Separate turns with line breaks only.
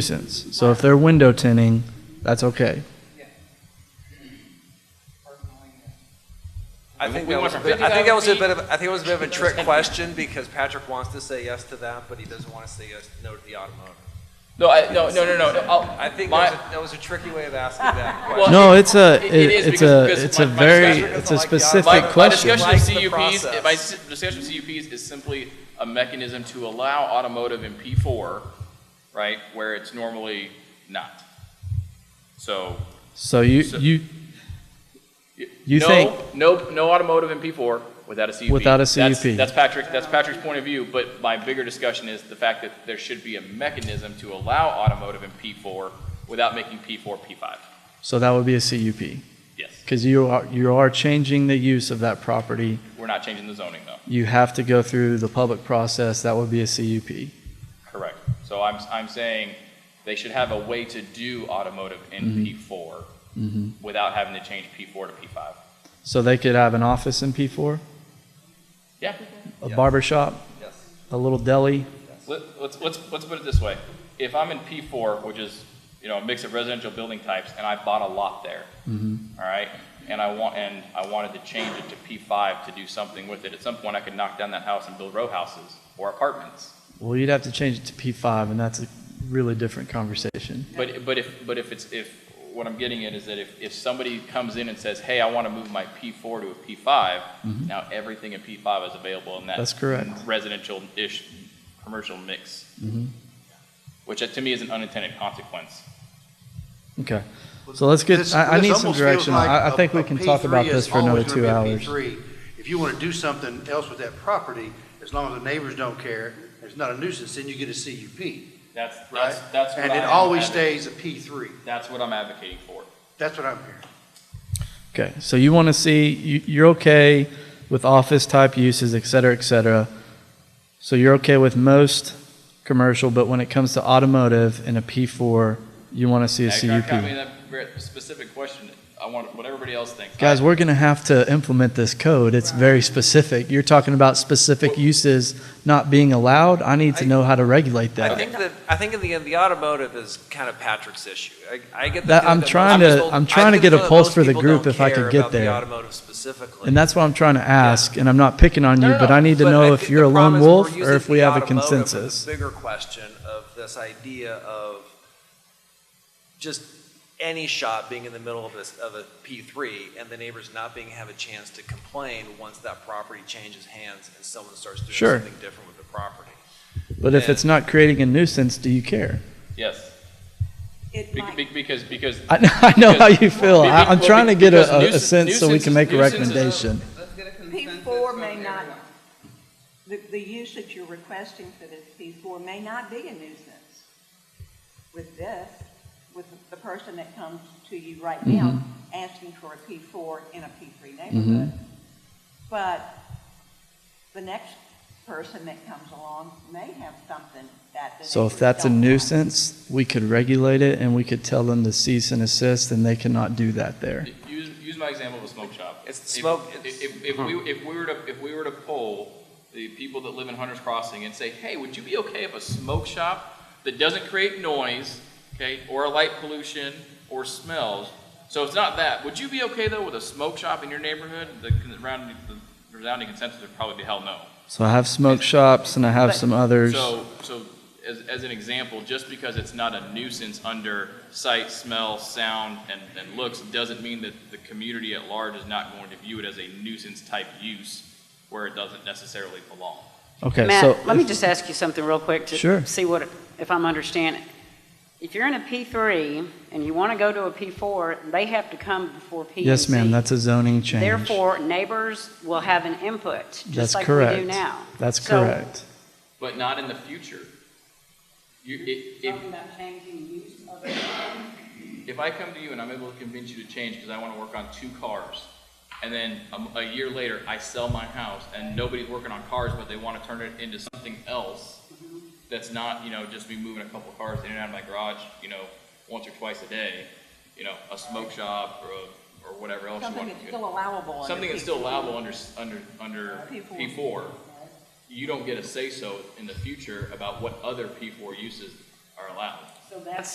nuisance. So if they're window tinning, that's okay.
I think that was, a bit- I think that was a bit of, I think it was a bit of a trick question because Patrick wants to say yes to that, but he doesn't want to say yes, no to the automotive.
No, I, no, no, no, no. no, I'll-
I think
my-
that was, a- that was a tricky way of asking that
Well,
question.
No, it's a
It- it is
it- it's
because-
a
because
it's
my-
a
my
very
discussion-
it's a
My-
specific
my
My
question.
discussion
Like
of
the
CUPs,
process.
my s- discussion of CUPs is simply a mechanism to allow automotive in P4, right, where it's normally not. So.
So you
So-
you
y-
You
no,
think-
Nope, no automotive in P4 without a CUP.
Without a
That's-
CUP.
That's Patrick, that's Patrick's point of view, but my bigger discussion is the fact that there should be a mechanism to allow automotive in P4 without making P4 P5.
so that would be a CUP
Yes,
because you are you are changing the use of that property.
we're not changing the zoning though.
You have to go through the public process. That would be a CUP.
Correct. So I'm, I'm saying they should have a way to do automotive in P4
hmm
without having to change P4 to P5.
So they could have an office in P4,
Yeah.
a
Yeah.
barber shop,
Yes.
a little deli.
Let, let's, let's, let's put it this way. If I'm in P4, which is, you know, a mix of residential building types, and I bought a lot there, all right? And I want, and I wanted to change it to P5 to do something with it. At some point, I could knock down that house and build row houses or apartments.
Well, you'd have to change it to P5, and that's a really different conversation.
But, but if, but if it's, if, what I'm getting at is that if, if somebody comes in and says, hey, I want to move my P4 to a P5, now everything in P5 is available in that.
Mm-hmm. That's correct.
Residential-ish, commercial mix.
Mm-hmm.
Which uh, to me is an unintended consequence.
Okay. So let's get.
This-
I, I
this
need some
almost feels
direction.
like
I, I
a-
think we
a
can talk about
P3 is
this for another
always gonna
two
be a
hours.
P3. If you want to do something else with that property, as long as the neighbors don't care, it's not a nuisance, then you get a CUP,
That's,
right?
that's, that's what I
And it
am
always
advo-
stays a P3.
That's what I'm advocating for.
That's what I'm hearing.
Okay. So you want to see you, you're okay with office type uses, et cetera, et cetera. So you're okay with most commercial, but when it comes to automotive and a P4, you want to see a
Yeah, I- I mean,
CUP.
that very specific question, I want what everybody else thinks.
Guys, we're going to have to implement this code. It's very specific. You're talking about specific uses not being allowed. I need to
I-
know how to regulate
I
that.
think that, I think in the end, the automotive is kind of Patrick's issue. I, I get the
That-
feeling
I'm
most
trying to-
people-
I'm
I
trying to get a
the feeling
pulse
most
for the
people
group
don't
if I could
care
get
about the
there.
automotive specifically.
And that's what I'm trying to ask, and I'm not picking on you,
No, no,
but
no.
I need to
But I
know if
think
you're
the
a lone
problem is we're
wolf or
using
if we
the
have a
automotive for this
consensus.
Bigger question of this idea of just any shop being in the middle of this, of a P three and the neighbors not being, have a chance to complain once that property changes hands and someone starts doing
Sure.
something different with the property.
But if
Yeah.
it's not creating a nuisance, do you care?
Yes,
It
Be-
might.
be- because, because
I know, I know how you feel. I, I'm
Because-
trying to get a,
because
a, a
nuisance-
sense so we can
nuisance-
make a
nuisance is a-
recommendation.
Let's get a consensus
P4
from
may not,
everyone.
the, the use that you're requesting for this P4 may not be a nuisance with this, with the- the person that comes to you right now
Mm-hmm.
asking for a P4 in a P3 neighborhood. But the next person that comes along may have something that the
So if
neighbors
that's a
don't like.
nuisance, we could regulate it and we could tell them to cease and assist and they cannot do that there.
Use, use my example of a smoke shop.
It's the
If-
smoke- it's-
If, if, if we, if we were to, if we were to poll the people that live in Hunter's Crossing and say, hey, would you be okay if a smoke shop that doesn't create noise, okay, or a light pollution, or smells, so it's not that, would you be okay though with a smoke shop in your neighborhood? The con- round- the resounding consensus would probably be hell no.
So I have smoke shops and I have some others.
So, so as, as an example, just because it's not a nuisance under sight, smell, sound, and, and looks, doesn't mean that the community at large is not going to view it as a nuisance type use where it doesn't necessarily belong.
Okay, so.
Matt, let me
if-
just ask you something real quick
Sure.
to see what, if I'm understanding. If you're in a P3 and you want to go to a P4, they have to come before P and
Yes, ma'am,
Z.
that's a zoning change.
Therefore, neighbors will have an input,
That's
just like we
correct.
do now.
That's
So-
correct.
But not in the future. You, if, if,
about changing use of it.
if I come to you and I'm able to convince you to change because I want to work on two cars, and then a, a year later I sell my house and nobody's working on cars, but they want to turn it into something else that's not, you know, just me moving a couple cars in and out of my garage, you know, once or twice a day, you know, a smoke shop or, a, or whatever else you
Something that's
want.
still allowable under
something that's
P4.
still allowable under s- under under
P4.
P four. You don't get a say so in the future about what other P four uses are allowed.
So So that's